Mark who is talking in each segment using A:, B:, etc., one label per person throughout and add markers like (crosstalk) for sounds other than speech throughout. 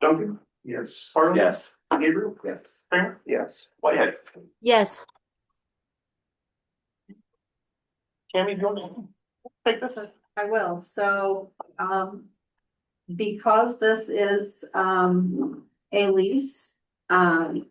A: Duncan? Yes. Harlan?
B: Yes.
A: Gabriel?
B: Yes.
A: Kramer?
C: Yes.
A: Whitehead?
D: Yes,
A: Tammy, do you want to take this?
E: I will, so, um. Because this is, um, a lease, um.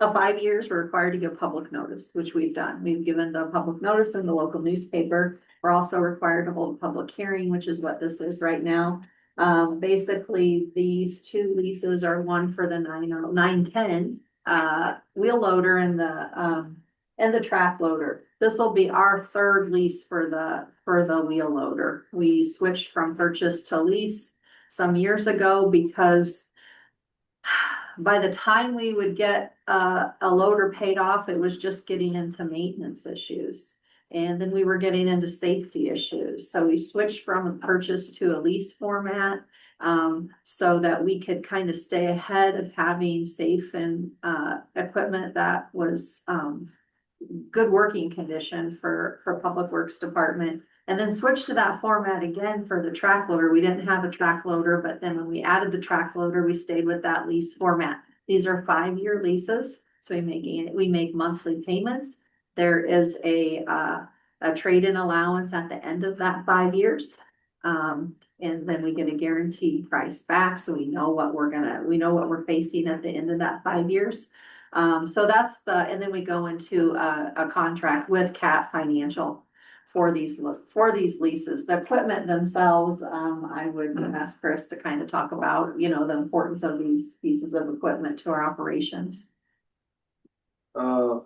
E: Of five years, we're required to give public notice, which we've done. We've given the public notice in the local newspaper. We're also required to hold a public hearing, which is what this is right now. Um, basically, these two leases are one for the nine, oh nine, ten, uh, wheel loader and the, um and the track loader. This will be our third lease for the, for the wheel loader. We switched from purchase to lease some years ago because (sighs) by the time we would get a, a loader paid off, it was just getting into maintenance issues. And then we were getting into safety issues. So we switched from a purchase to a lease format um, so that we could kind of stay ahead of having safe and, uh, equipment that was, um, good working condition for, for Public Works Department. And then switch to that format again for the track loader. We didn't have a track loader, but then when we added the track loader, we stayed with that lease format. These are five-year leases, so we making, we make monthly payments. There is a, uh, a trade-in allowance at the end of that five years. Um, and then we get a guaranteed price back, so we know what we're gonna, we know what we're facing at the end of that five years. Um, so that's the, and then we go into a, a contract with Cat Financial for these, lo- for these leases. The equipment themselves, um, I would ask Chris to kind of talk about, you know, the importance of these pieces of equipment to our operations.
C: Uh,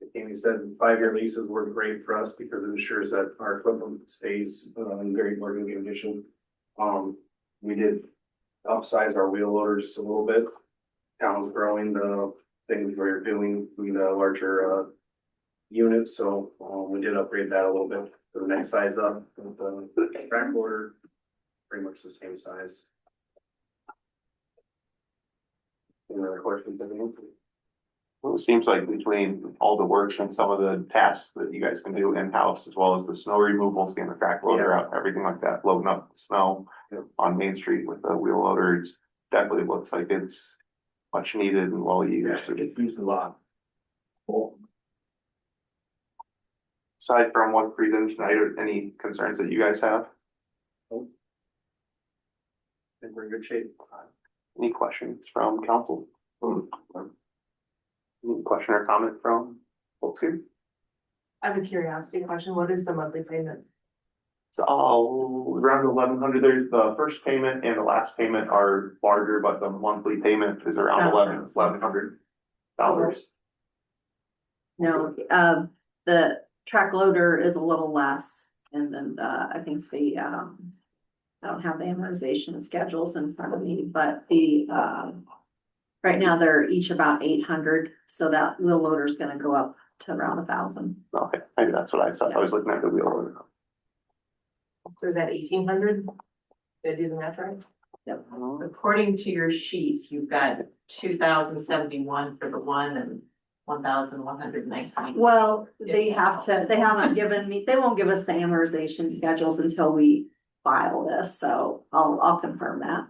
C: like Amy said five-year leases work great for us because it ensures that our equipment stays uh, in very working condition. Um, we did upsize our wheel loaders a little bit. Town's growing, the things we're doing, we need a larger uh unit, so um, we did upgrade that a little bit to the next size up with the track loader. Pretty much the same size. Any other questions, anyone?
B: Well, it seems like between all the work and some of the tasks that you guys can do in-house, as well as the snow removal, getting the track loader out, everything like that, loading up the snow
C: Yeah.
B: on Main Street with the wheel loader, it's definitely looks like it's much needed and well used.
C: used a lot.
B: Aside from what presentation, I don't, any concerns that you guys have,
C: And we're in good shape.
B: any questions from council? Any question or comment from folks here?
F: I have a curiosity question, what is the monthly payment?
B: It's all around eleven hundred, there's the first payment and the last payment are larger, but the monthly payment is around
F: Oh,
B: eleven,
F: that's-
B: eleven hundred dollars.
E: No, um, the track loader is a little less and then, uh, I think the, um, I don't have the amortization schedules in front of me, but the, um, right now they're each about eight hundred, so that wheel loader's gonna go up to around a thousand.
B: Okay, maybe that's what I saw, I was looking at the wheel order.
F: So is that eighteen hundred? Did I do the math right? Oh.
G: According to your sheets, you've got two thousand seventy-one for the one and one thousand one hundred nineteen.
E: Well, they have to, they haven't given me, they won't give us the amortization schedules until we file this, so I'll, I'll confirm that.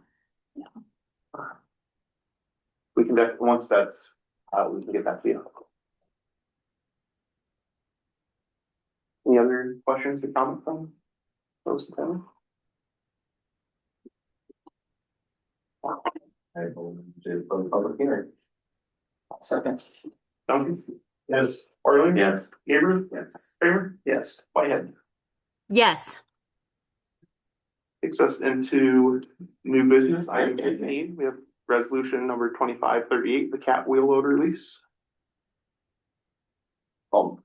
B: We can def, once that's, uh, we can get that to you. Any other questions or comments from those attending? I will do a public hearing.
C: Second.
A: Duncan? Yes. Harlan?
B: Yes.
A: Gabriel?
B: Yes.
A: Kramer?
C: Yes.
B: Whitehead.
D: yes,
B: takes us into new business, item fifteen, we have resolution number twenty-five thirty-eight, the cat wheel loader lease. Um,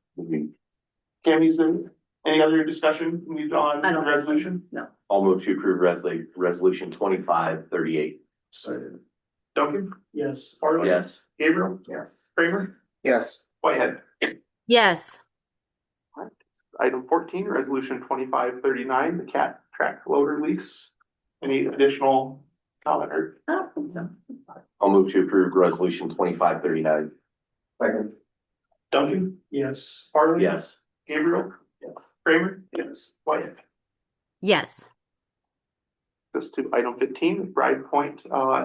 B: Cammy's there, any other discussion moved on
E: I
B: the
E: don't-
B: resolution?
H: I'll move to approve resolution, resolution twenty-five thirty-eight.
A: Duncan?
C: Yes.
A: Harlan?
H: Yes.
A: Gabriel?
B: Yes.
A: Kramer?
C: Yes.
B: Whitehead,
D: yes,
B: item fourteen, resolution twenty-five thirty-nine, the cat track loader lease. Any additional comment or
E: I don't think so.
H: I'll move to approve resolution twenty-five thirty-nine.
C: Second.
A: Duncan?
C: Yes.
A: Harlan?
H: Yes.
A: Gabriel?
H: Yes.
A: Kramer?
C: Yes.
A: Whitehead?
D: yes.
B: just to item fifteen, Bride Point, uh,